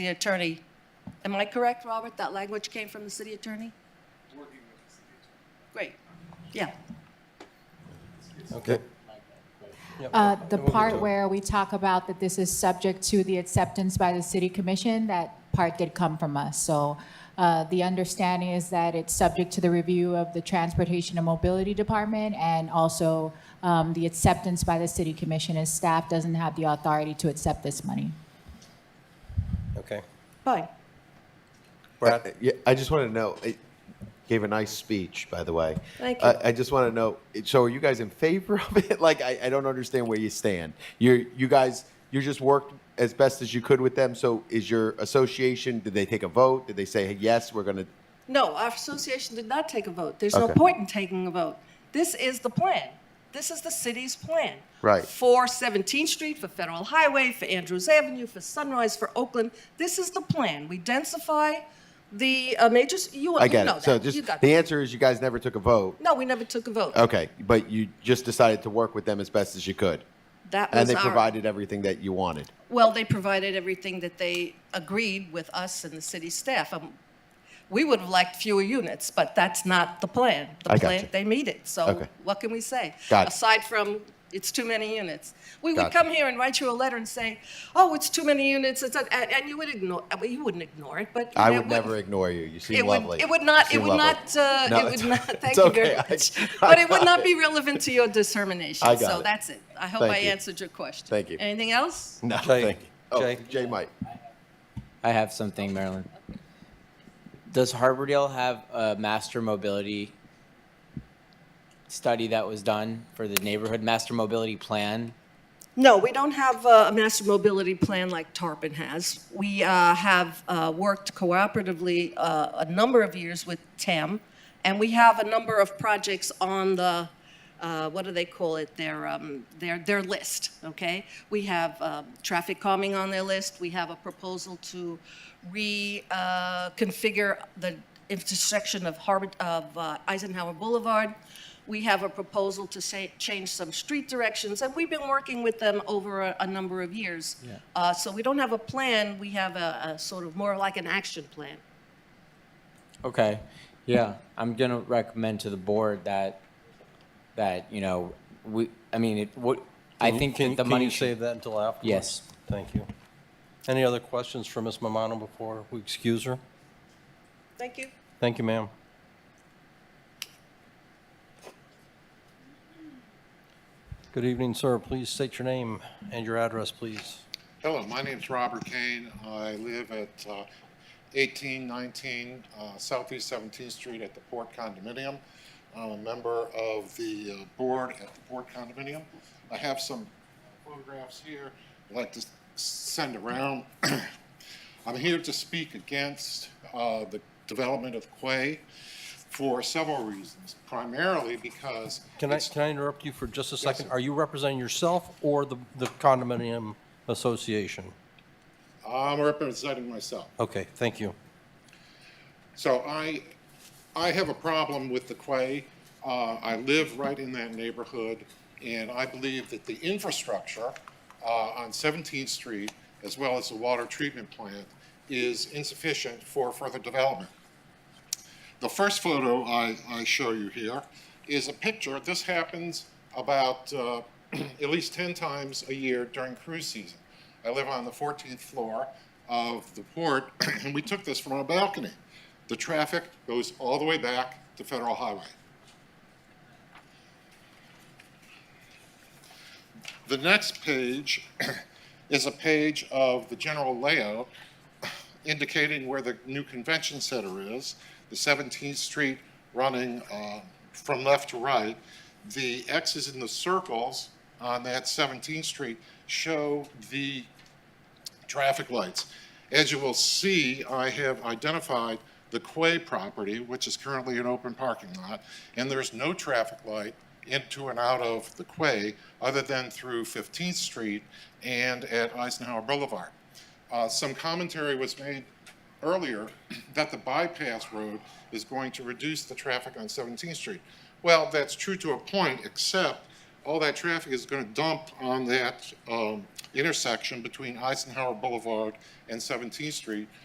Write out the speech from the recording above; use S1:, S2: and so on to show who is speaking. S1: the attorney. Am I correct, Robert? That language came from the city attorney? Working with the city attorney. Great, yeah.
S2: Okay.
S3: Uh, The part where we talk about that this is subject to the acceptance by the city commission, that part did come from us. So uh, the understanding is that it's subject to the review of the Transportation and Mobility Department and also um, the acceptance by the city commission, and staff doesn't have the authority to accept this money.
S2: Okay.
S1: Fine.
S2: Brad?
S4: Uh, yeah, I just want to know. It gave a nice speech, by the way.
S1: Thank
S4: Uh, I just want to know. it- So, are you guys in favor of it? Like, I, I don't understand where you stand. You you guys, you just worked as best as you could with them. So, is your association? Did they take a vote? Did they say hey, yes? We're gonna.
S1: No, our association did not take a vote. There's no
S4: Okay.
S1: point in taking a vote. This is the plan. This is the city's plan.
S4: Right.
S1: For 17th Street, for Federal Highway, for Andrews Avenue, for Sunrise, for Oakland. This is the plan. We densify the uh, major, s- you you know
S4: I get it.
S1: that.
S4: So,
S1: You
S4: just
S1: got
S4: the
S1: that.
S4: answer is you guys never took a vote.
S1: No, we never took a vote.
S4: Okay, but you just decided to work with them as best as you could,
S1: That
S4: and
S1: was
S4: they
S1: our,
S4: provided everything that you wanted.
S1: well, they provided everything that they agreed with us and the city staff. Um, We would have liked fewer units, but that's not the plan. The
S4: I got
S1: plan,
S4: you.
S1: they meet it, so
S4: Okay.
S1: what can we say?
S4: Got it.
S1: Aside from, it's too many units. We would
S4: Got you.
S1: come here and write you a letter and say, oh, it's too many units, it's, a- and and you would ignore, I mean, you wouldn't ignore it, but.
S4: I
S1: that
S4: would never ignore you. You seem
S1: It
S4: lovely.
S1: would, it would
S4: You
S1: not, it
S4: seem
S1: would
S4: lovely.
S1: not, uh,
S4: No,
S1: it would
S4: it's-
S1: not,
S4: it's
S1: thank you very
S4: okay. I-
S1: much.
S4: I
S1: But it would
S4: got
S1: not be relevant to your determination.
S4: I got
S1: So
S4: it.
S1: that's it. I hope
S4: Thank
S1: I
S4: you.
S1: answered your question.
S4: Thank you.
S1: Anything else?
S4: No,
S2: Jay.
S4: thank you. Oh,
S2: Jay.
S4: Jay Mike.
S5: I have something, Marilyn. Does Harbordale have a master mobility study that was done for the neighborhood master mobility plan?
S1: No, we don't have uh, a master mobility plan like Tarpon has. We uh, have uh, worked cooperatively uh, a number of years with TAM, and we have a number of projects on the, uh, what do they call it, their, um, their, their list, okay? We have um, traffic calming on their list, we have a proposal to reconfigure the intersection of Harbor, of uh, Eisenhower Boulevard. We have a proposal to say, change some street directions, and we've been working with them over a, a number of years. Uh, so we don't have a plan, we have a, a sort of more like an action plan.
S5: Okay, yeah, I'm gonna recommend to the board that, that, you know, we, I mean, it, what, I
S2: Can-
S5: think
S2: can-
S5: that the money
S2: Can you save
S5: should.
S2: that until afterwards?
S5: Yes.
S2: Thank you. Any other questions for Ms. Mamano before we excuse her?
S1: Thank you.
S2: Thank you, ma'am. Good evening, sir. Please state your name and your address, please.
S6: Hello, my name's Robert Kane. I live at uh, 1819 uh, Southeast 17th Street at the Port Condominium. I'm a member of the uh, board at the Port Condominium. I have some photographs here I'd like to s- send around. I'm here to speak against uh, the development of Quay for several reasons, primarily because
S2: Can I,
S6: it's-
S2: can I interrupt you for just a second?
S6: sir.
S2: Are you representing yourself or the the condominium association?
S6: I'm representing myself.
S2: Okay, thank you.
S6: So I, I have a problem with the Quay. Uh, I live right in that neighborhood, and I believe that the infrastructure uh, on 17th Street, as well as the water treatment plant, is insufficient for further development. The first photo I, I show you here is a picture, this happens about uh, at least 10 times a year during cruise season. I live on the 14th floor of the port, and we took this from our balcony. The traffic goes all the way back to Federal Highway. The next page is a page of the general layout indicating where the new convention center is, the 17th Street running uh, from left to right. The X's in the circles on that 17th Street show the traffic lights. As you will see, I have identified the Quay property, which is currently an open parking lot, and there's no traffic light into and out of the Quay other than through 15th Street and at Eisenhower Boulevard. Uh, Some commentary was made earlier that the bypass road is going to reduce the traffic on 17th Street. Well, that's true to a point, except all that traffic is going to dump on that um, intersection between Eisenhower Boulevard and 17th Street,